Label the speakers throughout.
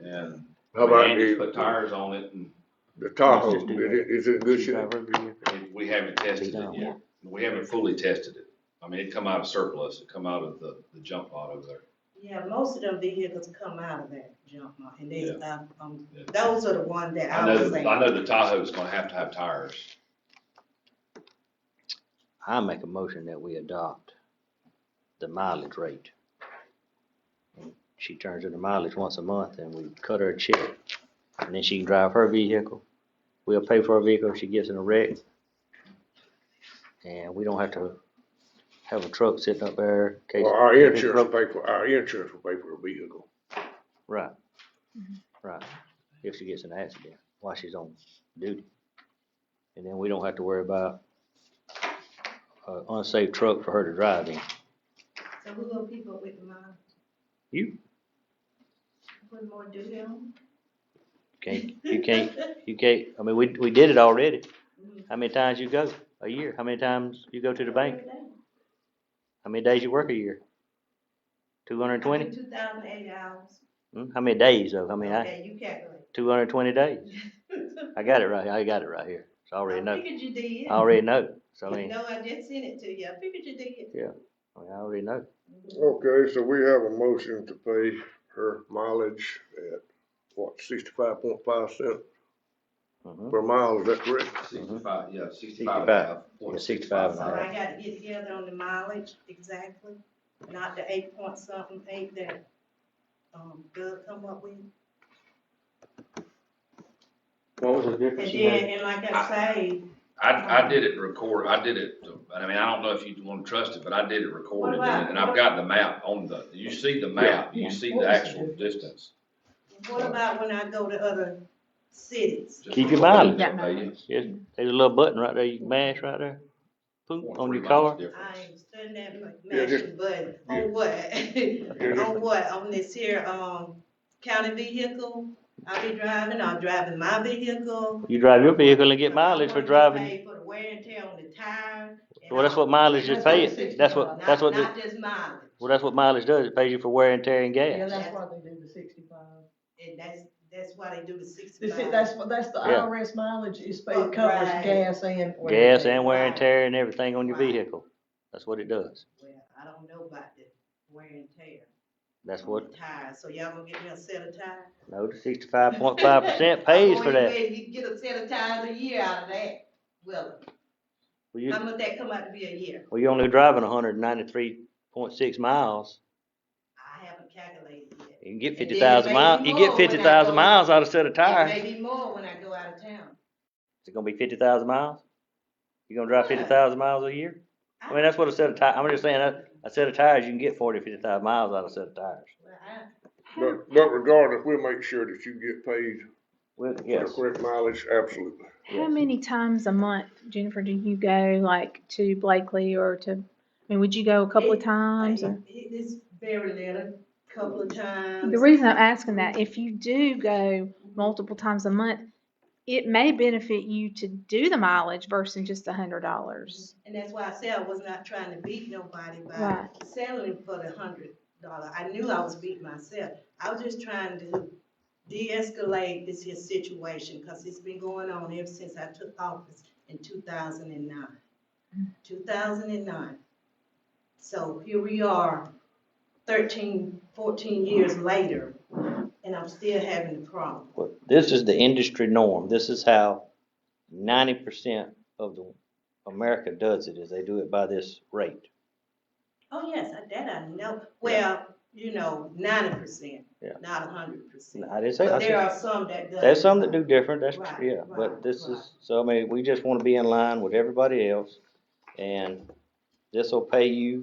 Speaker 1: and
Speaker 2: How
Speaker 1: we
Speaker 2: about
Speaker 1: had to put
Speaker 2: the,
Speaker 1: tires on it and
Speaker 2: the Tahoe,
Speaker 3: Let's just do
Speaker 2: is it, is it in good
Speaker 3: She
Speaker 2: shape?
Speaker 3: drive over here.
Speaker 1: it- we haven't tested it yet. We haven't fully tested it. I mean, it come out of surplus, it come out of the, the jump lot over there.
Speaker 4: Yeah, most of them vehicles come out of that jump lot, and they, um, um,
Speaker 1: Yeah.
Speaker 4: those are the ones that
Speaker 1: I
Speaker 4: I
Speaker 1: know, the-
Speaker 4: was saying.
Speaker 1: I know the Tahoe's gonna have to have tires.
Speaker 3: I make a motion that we adopt the mileage rate. She turns in the mileage once a month and we cut her a check. And then she can drive her vehicle. We'll pay for her vehicle if she gets in a wreck. And we don't have to have a truck sitting up there. in case-
Speaker 2: Well, our insurance will pay for, our insurance will pay for a vehicle.
Speaker 3: Right, right. If she gets in an accident while she's on duty. And then we don't have to worry about an unsafe truck for her to drive in.
Speaker 4: So who will people with the mine,
Speaker 3: You
Speaker 4: put more duty on?
Speaker 3: can't, you can't, you can't, I mean, we, we did it already. How many times you go a year? How many times you go to the bank? How many days you work a year? Two hundred and twenty? Hmm,
Speaker 4: Two thousand eight hours.
Speaker 3: How many days though? I mean, I,
Speaker 4: Okay, you calculate.
Speaker 3: two hundred and twenty days. I got it right, I got it right here. So I already
Speaker 4: I
Speaker 3: know,
Speaker 4: figured you
Speaker 3: I
Speaker 4: did.
Speaker 3: already know. So I mean,
Speaker 4: No, I just sent it to you, I figured you did.
Speaker 3: I mean, I already know.
Speaker 2: Okay, so we have a motion to pay her mileage at, what, sixty-five point five cent
Speaker 3: Mhm.
Speaker 2: per mile, is that correct?
Speaker 1: Sixty-five, yeah, sixty-five
Speaker 3: Sixty-five.
Speaker 1: and a half.
Speaker 3: Yeah, 65 and a
Speaker 4: So
Speaker 3: half.
Speaker 4: I gotta get together on the mileage exactly, not the eight point something, eight that, um, Doug come up with.
Speaker 3: What was the
Speaker 4: And
Speaker 3: difference
Speaker 4: then, and like I say,
Speaker 1: I, I did it record, I did it, I mean, I don't know if you wanna trust it, but I did it recorded
Speaker 4: What about-
Speaker 1: and I've got the map on the, you see the map, you see the actual distance.
Speaker 4: what about when I go to other cities?
Speaker 1: Just
Speaker 3: Keep your
Speaker 1: recorded,
Speaker 5: mileage.
Speaker 1: they use.
Speaker 3: Yes, there's a little button right there, you can mash right there. Boom, on your car.
Speaker 1: 0.3 miles difference.
Speaker 4: I ain't studying that
Speaker 2: Yeah, just-
Speaker 4: McMansion, but on what? On what, on this here, um, county vehicle, I be driving, I'm driving my vehicle.
Speaker 3: You drive your vehicle and get
Speaker 4: I
Speaker 3: mileage for
Speaker 4: wanna get
Speaker 3: driving.
Speaker 4: paid For the wear and tear on the tire. and
Speaker 3: Well, that's
Speaker 4: all.
Speaker 3: what mileage is
Speaker 5: That's what
Speaker 3: paying.
Speaker 5: sixty
Speaker 3: That's what,
Speaker 5: miles.
Speaker 3: that's what,
Speaker 4: Not,
Speaker 3: the-
Speaker 4: not just mileage,
Speaker 3: well, that's what mileage does. It pays you for wear and tear and
Speaker 5: Yeah,
Speaker 3: gas.
Speaker 5: that's why they do the sixty-five.
Speaker 4: and that's, that's why they do the
Speaker 5: They said
Speaker 4: sixty-five.
Speaker 5: That's, what- that's the
Speaker 3: Yeah.
Speaker 5: IRS mileage is
Speaker 4: Oh,
Speaker 5: paid, covers
Speaker 4: right.
Speaker 5: gas and. oil.
Speaker 3: Gas and wear and tear and everything on your
Speaker 4: Right.
Speaker 3: vehicle. That's what it does.
Speaker 4: Well, I don't know about the wear and tear.
Speaker 3: That's
Speaker 4: on
Speaker 3: what,
Speaker 4: the Tires, so y'all gonna get me a set of tires?
Speaker 3: no, the sixty-five point five percent pays for that.
Speaker 4: You get a set of tires a year out of that, well,
Speaker 3: Well,
Speaker 4: how
Speaker 3: you,
Speaker 4: much that come out to be a year?
Speaker 3: well, you're only driving hundred and ninety-three point six miles.
Speaker 4: I haven't calculated yet.
Speaker 3: You can get
Speaker 4: And then
Speaker 3: fifty thousand
Speaker 4: maybe
Speaker 3: miles, you
Speaker 4: more
Speaker 3: get
Speaker 4: when I
Speaker 3: fifty thousand
Speaker 4: go-
Speaker 3: miles out of a set of tires.
Speaker 4: It may be more when I go out of town.
Speaker 3: Is it gonna be fifty thousand miles? You gonna drive fifty
Speaker 4: Yeah.
Speaker 3: thousand miles a year? I mean, that's what a set of tires, I'm just saying, a, a set of tires, you can get forty, fifty thousand miles out of a set of tires.
Speaker 4: Well, I,
Speaker 2: But, but regardless, we'll make sure that you get paid
Speaker 3: Well,
Speaker 2: for the
Speaker 3: yes,
Speaker 2: correct mileage, absolutely.
Speaker 6: How many times a month, Jennifer, do you go like to Blakely or to, I mean, would you go a couple of times or?
Speaker 4: it is very little, couple of times.
Speaker 6: The reason I'm asking that, if you do go multiple times a month, it may benefit you to do the mileage versus just a hundred dollars.
Speaker 4: And that's why I said I was not trying to beat nobody by
Speaker 6: Right.
Speaker 4: selling for the hundred dollar. I knew I was beating myself. I was just trying to de-escalate this here situation, cause it's been going on ever since I took office in two thousand and nine. Two thousand and nine. So here we are, 13, 14 years later, and I'm still having the problem.
Speaker 3: Well, this is the industry norm, this is how ninety percent of the, America does it, is they do it by this rate.
Speaker 4: Oh, yes, I- that I know. Well, you know, ninety percent,
Speaker 3: Yeah.
Speaker 4: not hundred percent.
Speaker 3: And I didn't say, I
Speaker 4: But there
Speaker 3: said,
Speaker 4: are some that does.
Speaker 3: there's some that do different, that's,
Speaker 4: Right,
Speaker 3: yeah, but
Speaker 4: right,
Speaker 3: this
Speaker 4: right.
Speaker 3: is, so I mean, we just wanna be in line with everybody else. And this'll pay you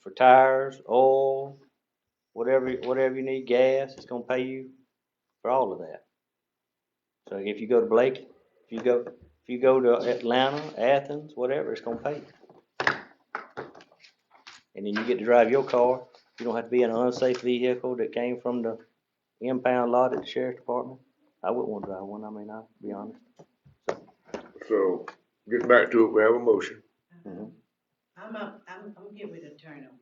Speaker 3: for tires, oil, whatever, whatever you need, gas, it's gonna pay you for all of that. So if you go to Blake, if you go, if you go to Atlanta, Athens, whatever, it's gonna pay you. And then you get to drive your car, you don't have to be in an unsafe vehicle that came from the impound lot at the sheriff's department. I wouldn't wanna drive one, I mean, I'll be honest.
Speaker 2: So, getting back to it, we have a motion.
Speaker 3: Mhm.
Speaker 4: I'm, a- I'm, I'm getting with the turn on,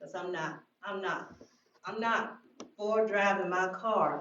Speaker 4: because I'm not, I'm not, I'm not for driving my car